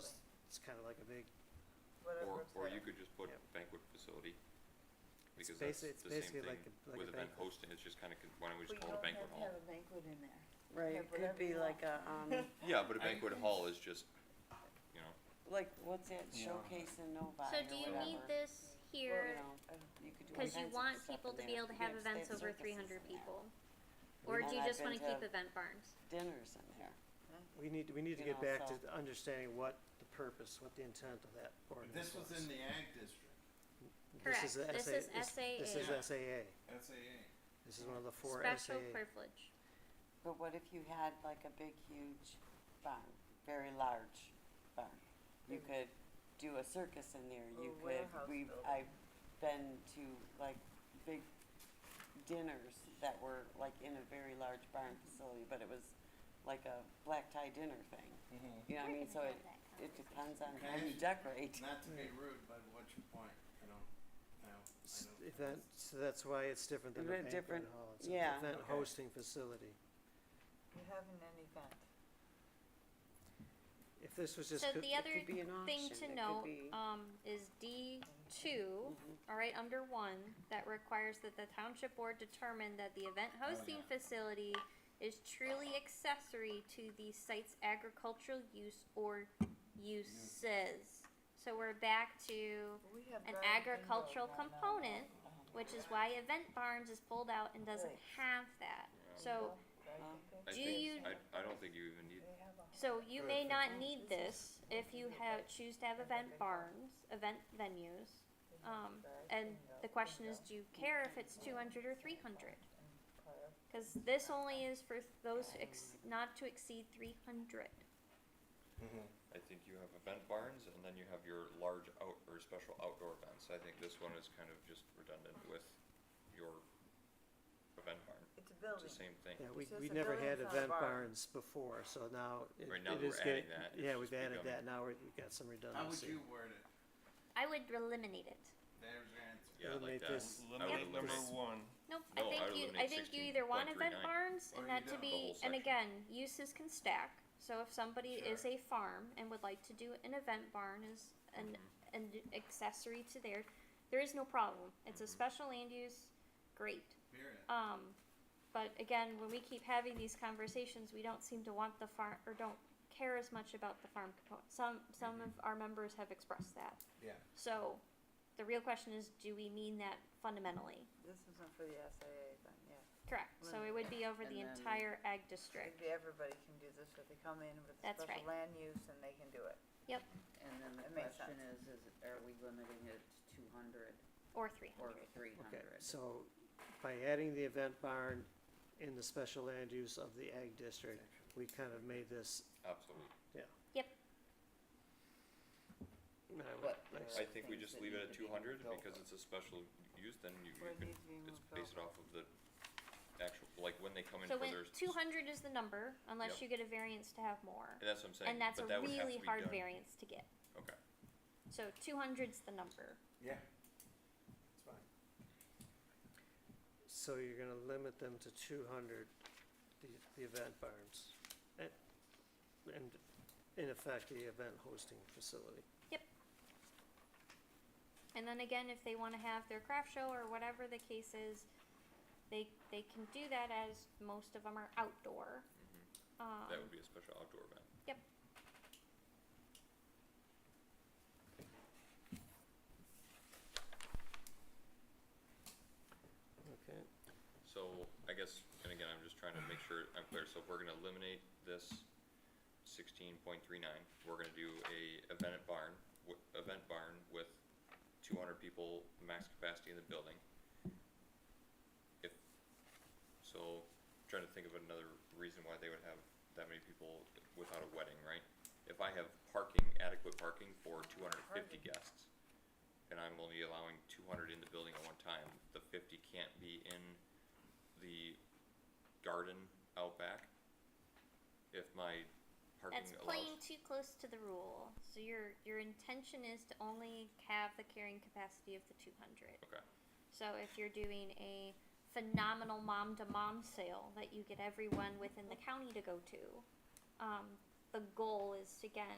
just kind of like a big, Or, whatever. or you could just put Yep. banquet facility, it's because that's basically, the it's same basically thing like a, like with a event banquet. hosting, it's just kinda, con- why don't we just call it a banquet hall? have a banquet in there. Right, it could be like a, um, Yeah, but a I- banquet hall is just, you know, like, what's that Yeah. showcase in Novi So or do you need whatever? this here, Well, you know, uh, you could do cause you events and want stuff people in to be there. able to You have could events state over circuses three hundred in there, people? Or do you And I've just wanna been to keep event barns? Dinners in there. We need, we need to You get know, back to so- the understanding what the purpose, what the intent of that But ordinance This was. was in the ag district, This is Correct. This SA is This SAA. is SAA, SAA. this is one of the four Special SAA, privilege. But what if you had like a big, huge barn, very large barn? You could do a circus in there, you Or could, warehouse we've, building. I've been to like big dinners that were like in a very large barn facility, but it was like a black tie dinner thing. Mm-hmm. You know what I mean? So it, it depends on how you Okay. decorate. Not to be rude, but what's your point, you know, now, I S- know. event, so that's why it's different than a Event banquet different, hall, it's an yeah. event Okay. hosting facility. You're having an event. If this was just, So co- the other could be an thing auction, it to could note, be- Mhm. um, is D two, Mm-hmm. alright, under one, that requires that the township board determine that the event Oh, hosting yeah. facility is truly accessory to the site's agricultural use or uses. So we're back to We have an garden agricultural windows on that wall. component, which is why event barns is pulled out and doesn't have that. So, Garden I Do thing. you- think, I, I don't think you even need, They have a- so you may not need this if you have, choose to have event barns, event venues. they have Um, garden and the window, question is, window, do you care if it's two hundred or three hundred? and park. Cause this only is for those ex- not to exceed three hundred. I think you have event barns, and then you have your large out, or special outdoor events, I think this one is kind of just redundant with your event barn, It's a it's building. the same thing. yeah, we, It's just we a never building had without a event bar. barns before, so now it, Right, now it that is we're getting, adding that, yeah, it's we've added becoming- that, now we're, we've got some How would redundancy. you word it? I would eliminate it. There's your answer. Yeah, I like Eliminate that. this. I would Yep. eliminate one. Nope, No, I think I would you, I eliminate think you either want event 16.39. barns Or and you that to don't. The be, whole and section. again, uses can stack. So if somebody is Sure. a farm and would like to do an event barn as an, Mm-hmm. an accessory to theirs, there is no problem. It's a Mhm. special land use, great. Period. Um, but again, when we keep having these conversations, we don't seem to want the farm, or don't care as much about the farm component. Some, some of Mm-hmm. our members have expressed that. Yeah. So, the real question is, do we mean that fundamentally? This isn't for the SAA then, yeah. Correct, so it would be over And the then- entire ag district. It'd be everybody can do this, if they come in with a That's special right. land use and they can do it. And then the That makes question is, is, it- are we limiting it to two hundred Or three or hundred. three Okay, hundred? so by adding the event barn in the special land use of the ag district, we kind of made this, Absolutely. I would- But like, there I are think we things just that leave need it at to two be hundred, built because it's a special use, then you, Where you it can, needs to be it's moved based off of the actual, like, when they come in Oh, So for when, their. s- two hundred is the number, unless Yep. you get a variance to have more. And that's what I'm saying, And that's a but that would have to really be hard done. variance to get. Okay, So two hundred's the number. Yeah. It's fine. So you're gonna limit them to two hundred, the, the event barns, and, and in effect, the event hosting facility. And then again, if they wanna have their craft show or whatever the case is, they, they can do that as most of them are outdoor. Um, Mm-hmm. that would be a special outdoor event. Okay. So, I guess, and again, I'm just trying to make sure I'm clear, so if we're gonna eliminate this sixteen point three nine, we're gonna do a event barn, w- event barn with two hundred people max capacity in the building. If, so, trying to think of another reason why they would have that many people without a wedding, right? If I have parking, adequate parking for two hundred and fifty Parking. guests, and I'm only allowing two hundred in the building at one time, the fifty can't be in the garden out back. If my parking That's playing allows, too close to the rule. So your your intention is to only have the carrying capacity of the 200. Okay. So if you're doing a phenomenal mom to mom sale that you get everyone within the county to go to, um, the goal is again